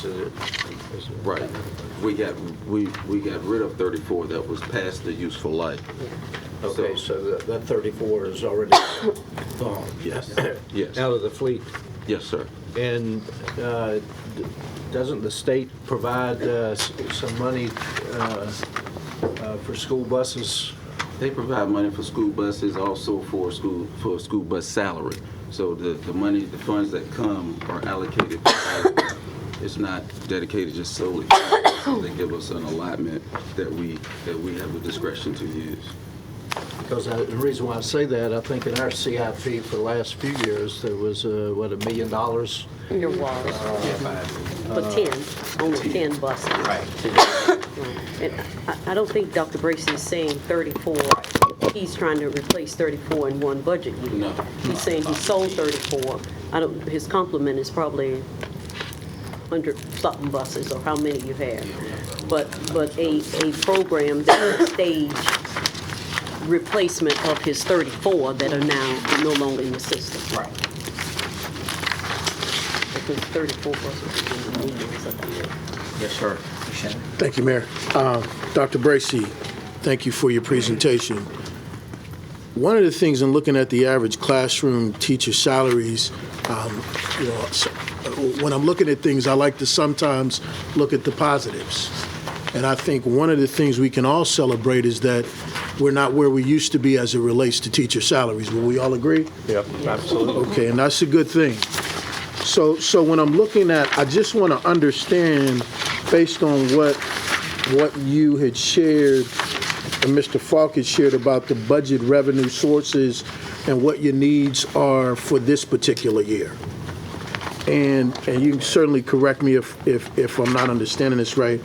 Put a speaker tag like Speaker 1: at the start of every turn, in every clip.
Speaker 1: to it.
Speaker 2: Right. We got, we, we got rid of 34 that was past the useful life.
Speaker 1: Okay, so that that 34 is already gone.
Speaker 2: Yes. Yes.
Speaker 1: Out of the fleet.
Speaker 2: Yes, sir.
Speaker 1: And uh, d- doesn't the state provide uh, s- some money uh, uh, for school buses?
Speaker 2: They provide money for school buses, also for school, for school bus salary. So the, the money, the funds that come are allocated. It's not dedicated just solely. They give us an allotment that we, that we have the discretion to use.
Speaker 1: Because I- the reason why I say that, I think in our CIP for the last few years, there was, uh, what, a million dollars?
Speaker 3: Your walls, for 10, only 10 buses. Right. And I- I don't think Dr. Bracy is saying 34, he's trying to replace 34 in one budget year.
Speaker 2: No.
Speaker 3: He's saying he sold 34. I don't, his complement is probably 100 something buses or how many you have. But, but a, a program that would stage replacement of his 34 that are now no longer in the system.
Speaker 4: Right.
Speaker 3: I think 34 buses in the meeting or something.
Speaker 4: Yes, sir. Shannon.
Speaker 5: Thank you, Mayor. Uh, Dr. Bracy, thank you for your presentation. One of the things in looking at the average classroom teacher salaries, um, you know, s- when I'm looking at things, I like to sometimes look at the positives. And I think one of the things we can all celebrate is that we're not where we used to be as it relates to teacher salaries. Will we all agree?
Speaker 1: Yep, absolutely.
Speaker 5: Okay, and that's a good thing. So, so when I'm looking at, I just want to understand, based on what, what you had shared, and Mr. Falk had shared about the budget revenue sources and what your needs are for this particular year. And, and you can certainly correct me if, if, if I'm not understanding this right.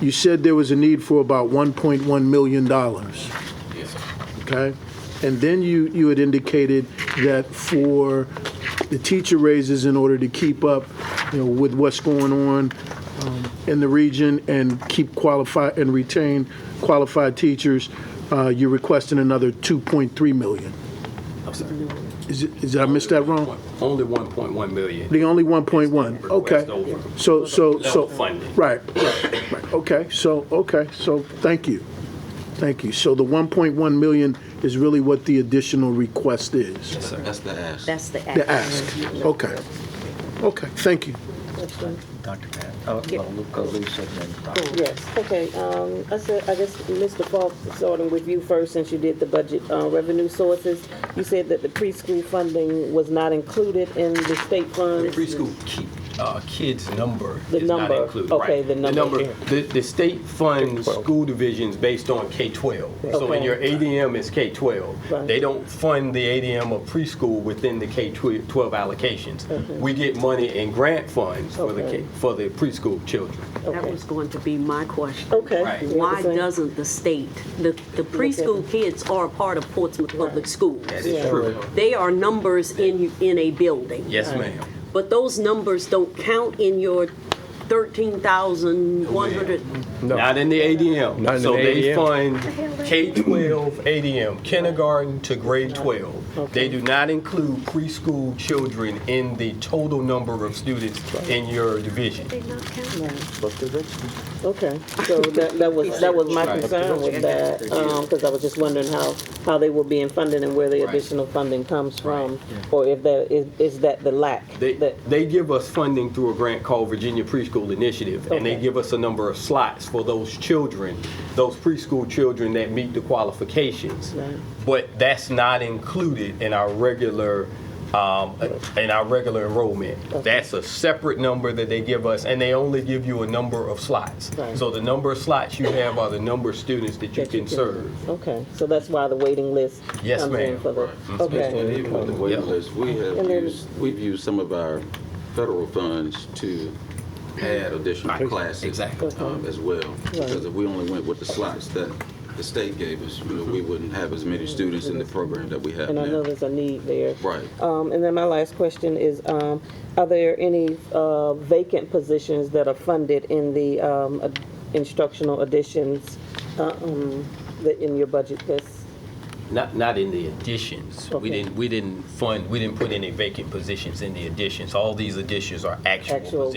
Speaker 5: You said there was a need for about $1.1 million okay? And then you, you had indicated that for the teacher raises in order to keep up, you know, with what's going on um, in the region and keep qualified and retain qualified teachers, uh, you're requesting another 2.3 million.
Speaker 6: I'm sorry.
Speaker 5: Is it, is, did I miss that wrong?
Speaker 6: Only 1.1 million.
Speaker 5: The only 1.1,
Speaker 6: Request over.
Speaker 5: okay. So, so, so.
Speaker 6: Level funding.
Speaker 5: Right, right, right. okay, so, okay, so, thank you, thank you. So the 1.1 million is really what the additional request is?
Speaker 2: That's the ask.
Speaker 3: That's the act.
Speaker 5: The ask, okay, okay, thank you.
Speaker 4: Dr. Pat. Oh,
Speaker 3: Yeah.
Speaker 4: well, Luca, Lisa, and then Dr.
Speaker 7: Yes, okay, um, I said, I guess, Mr. Falk, starting with you first, since you did the budget, uh, revenue sources, you said that the preschool funding was not included in the state
Speaker 6: The
Speaker 7: funds?
Speaker 6: preschool ki- uh, kids number
Speaker 7: The
Speaker 6: is not
Speaker 7: number.
Speaker 6: included.
Speaker 7: Okay,
Speaker 6: right.
Speaker 7: the number.
Speaker 6: The, the state funds school divisions based on K-12. So in
Speaker 7: Okay.
Speaker 6: your ADM is K-12.
Speaker 7: Right.
Speaker 6: They don't fund the ADM of preschool within the K-12 allocations. We get money in grant funds for the
Speaker 7: Okay.
Speaker 6: K- for the preschool children.
Speaker 3: That was going to be my question.
Speaker 7: Okay.
Speaker 6: Right.
Speaker 7: you know what
Speaker 3: Why
Speaker 7: I'm saying?
Speaker 3: doesn't the state, the the preschool kids are a part of Portsmouth Public Schools.
Speaker 6: That is true.
Speaker 3: They are numbers in, in a building.
Speaker 6: Yes, ma'am.
Speaker 3: But those numbers don't count in your 13,100.
Speaker 6: Not in the ADM.
Speaker 8: Not in
Speaker 6: so
Speaker 8: the
Speaker 6: they
Speaker 8: ADM.
Speaker 6: fund K 12 ADM, kindergarten to grade 12. They do not include preschool children in the total number of students in your division.
Speaker 7: Okay, so that, that was, that was my concern with that, um, cause I was just wondering how, how they were being funded and where the additional funding comes from, or if there, is, is that the lack?
Speaker 6: They,
Speaker 7: that-
Speaker 6: they give us funding through a grant called Virginia Preschool Initiative, and they
Speaker 7: Okay.
Speaker 6: give us a number of slots for those children, those preschool children that meet the qualifications.
Speaker 7: Right.
Speaker 6: But that's not included in our regular, um, in our regular enrollment. That's a separate number that they give us, and they only give you a number of slots.
Speaker 7: Right.
Speaker 6: So the number of slots you have are the number of students that you
Speaker 7: that you
Speaker 6: can serve.
Speaker 7: Okay, so that's why the waiting list
Speaker 6: Yes,
Speaker 7: comes in
Speaker 6: ma'am.
Speaker 7: for the,
Speaker 2: And
Speaker 7: okay,
Speaker 2: even with the waiting list, we have
Speaker 7: And then-
Speaker 2: used, we've used some of our federal funds to add additional classes.
Speaker 6: exactly.
Speaker 7: Uh-huh.
Speaker 2: um, As well, because if we only went with the slots that the state gave us, you know, we wouldn't have as many students in the program that we have
Speaker 7: and I know
Speaker 2: now.
Speaker 7: there's a need there.
Speaker 2: Right.
Speaker 7: Um, and then my last question is, um, are there any, uh, vacant positions that are funded in the, um, ad- instructional additions, uh, um, that in your budget list?
Speaker 6: Not, not in the additions. We
Speaker 7: Okay.
Speaker 6: didn't, we didn't fund, we didn't put any vacant positions in the additions. All these additions are actual
Speaker 7: Actual
Speaker 6: positions.